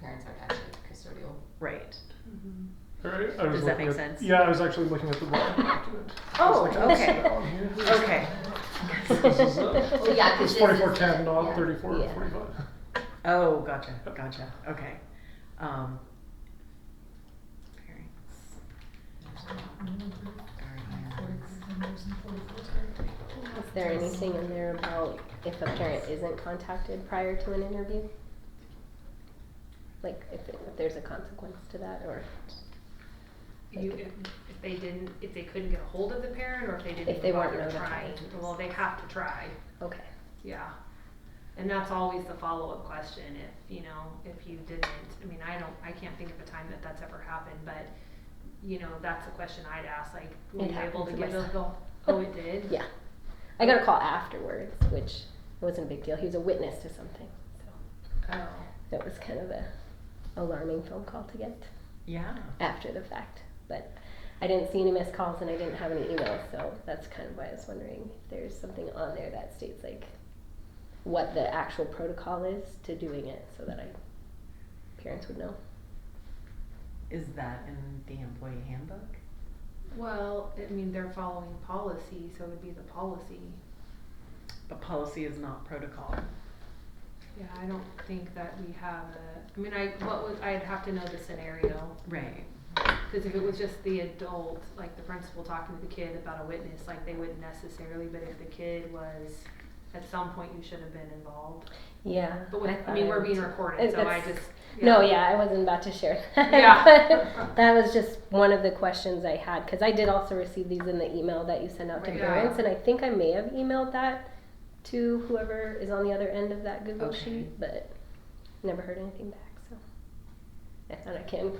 parents aren't actually custodial. Right. Alright, I Does was that looking make at- sense? Yeah, I was actually looking at the wrong document. I was Oh, like, what's okay. that on here? Okay. This is, uh, Well, yeah, 'cause It's this forty-four is- ten, not yeah, thirty-four or yeah. forty-five. Oh, gotcha, gotcha. Okay. Um, parents are here. Is there anything in there about if a parent isn't contacted prior to an interview? Like if, if there's a consequence to that or You, if, if they didn't, if they couldn't get a hold of the parent, or if they didn't If they weren't bother trying, notified. well, they have to try, okay. yeah. And that's always the follow-up question, if, you know, if you didn't, I mean, I don't, I can't think of a time that that's ever happened, but, you know, that's the question I'd ask, like, were It you able happened to to give my them the, son. oh, it did? Yeah. I got a call afterwards, which wasn't a big deal. He was a witness to something. So Oh, that was kind of a alarming phone call to get Yeah. after the fact. But I didn't see any missed calls and I didn't have any emails, so that's kind of why I was wondering if there's something on there that states like what the actual protocol is to doing it so that I parents would know. Is that in the employee handbook? well, I mean, they're following policy, so it would be the policy. But policy is not protocol. Yeah, I don't think that we have a, I mean, I, what was, I'd have to know the scenario. Right. Because if it was just the adult, like the principal talking to the kid about a witness, like they wouldn't necessarily, but if the kid was, at some point you should have been involved. Yeah. But with, I thought mean, we're would being too. recorded, so I That's- just. No, yeah, I wasn't about to share that. Yeah. but that was just one of the questions I had because I did also receive these in the email that you sent out to Right. parents, Yeah. and I think I may have emailed that to whoever is on the other end of that Google Okay. sheet, but never heard anything back. So I thought I can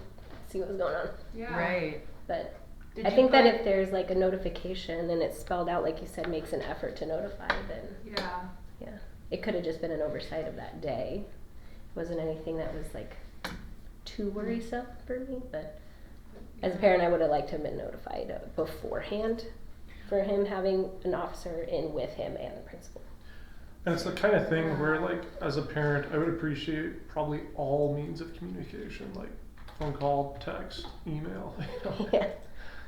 see what was going on, Yeah. Right. but Did I you think that put- if there's like a notification and it's spelled out, like you said, makes an effort to notify, then Yeah, yeah, it could have just been an oversight of that day. It wasn't anything that was like too worrisome for me, but as a parent, I would have liked to have been notified uh, beforehand for him having an officer in with him and the principal. And it's the kind of thing where, like, as a parent, I would appreciate probably all means of communication, like phone call, text, email. You know? yeah,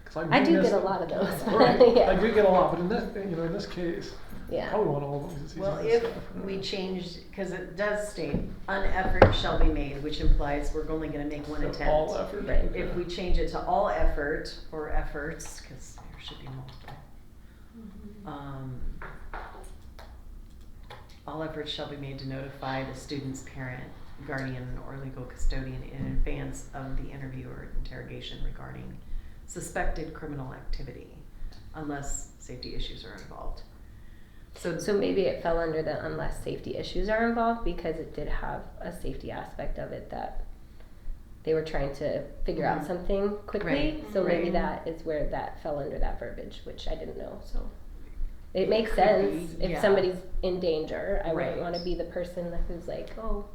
'Cause I, I do miss- get a lot of those. but Right. I yeah, do get a lot, but in this, you know, in this case, I yeah, probably want all of them. 'cause it's Well, easier if to staff. we change, because it does state, an effort shall be made, which implies we're only gonna make one So all attempt. effort. Right. If we change it to all effort or efforts, because there should be multiple. Mm-hmm. um, All efforts shall be made to notify the student's parent, guardian, or legal custodian in advance of the interview or interrogation regarding suspected criminal activity, unless safety issues are involved. So so maybe it fell under the unless safety issues are involved because it did have a safety aspect of it that they were trying to figure Mhm. out something quickly. Right, So maybe right. that is where that fell under that verbiage, which I didn't know. So it, It makes could sense be, if yeah. somebody's in danger. I Right. wouldn't want to be the person who's like, oh,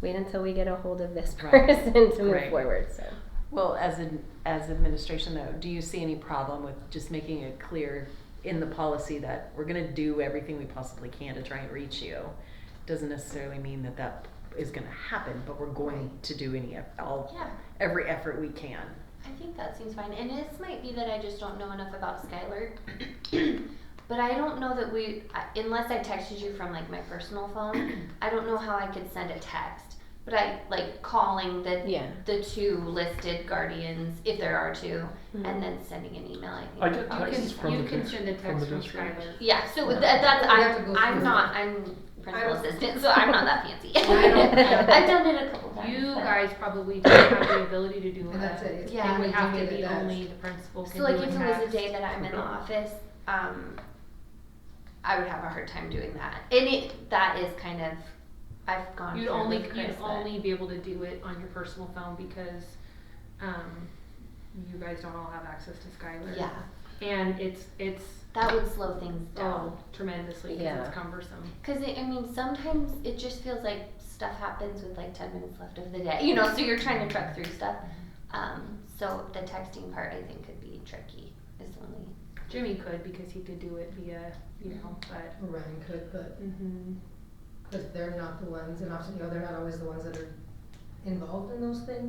wait until we get a hold of this Right. person to move Right. forward. So Well, as an, as administration though, do you see any problem with just making it clear in the policy that we're gonna do everything we possibly can to try and reach you? Doesn't necessarily mean that that is gonna happen, but we're going to do any, eff- all, Yeah, every effort we can. I think that seems fine. And this might be that I just don't know enough about Skylar. but I don't know that we, I- unless I texted you from like my personal phone, I don't know how I could send a text. But I like calling the Yeah. the two listed guardians, if there are 2 Mhm. Hmm. and then sending an email. I think I would get probably texts be from you the can dis- send a from the text from district. Skylar. Yeah, so with that, that's have to go I'm, I'm through. not I'm principal don't- assistant, so I'm not that fancy. I don't- I've done it a couple times. You but- guys probably don't have the ability to do And that's that. it. It's Yeah, It would only have doing to it be as- only the principal can So do a like if it was a text. day that I'm in the office, um, I would have a hard time doing that. And it, that is kind of, I've gone You'd through only, with Chris, you'd but- only be able to do it on your personal phone because, um, you guys don't all have access to Skylar. Yeah, And it's, it's, that would slow things oh, down. tremendously, cause Yeah. it's cumbersome. Cause it, I mean, sometimes it just feels like stuff happens with like ten minutes left of the day, you know, so you're trying to truck through stuff. Mm-hmm. Um, so the texting part I think could be tricky, is the only. Jimmy could because he could do it via, you know, but, Ryan could, but, mm-hmm. but they're not the ones, and often, you know, they're not always the ones that are involved in those things?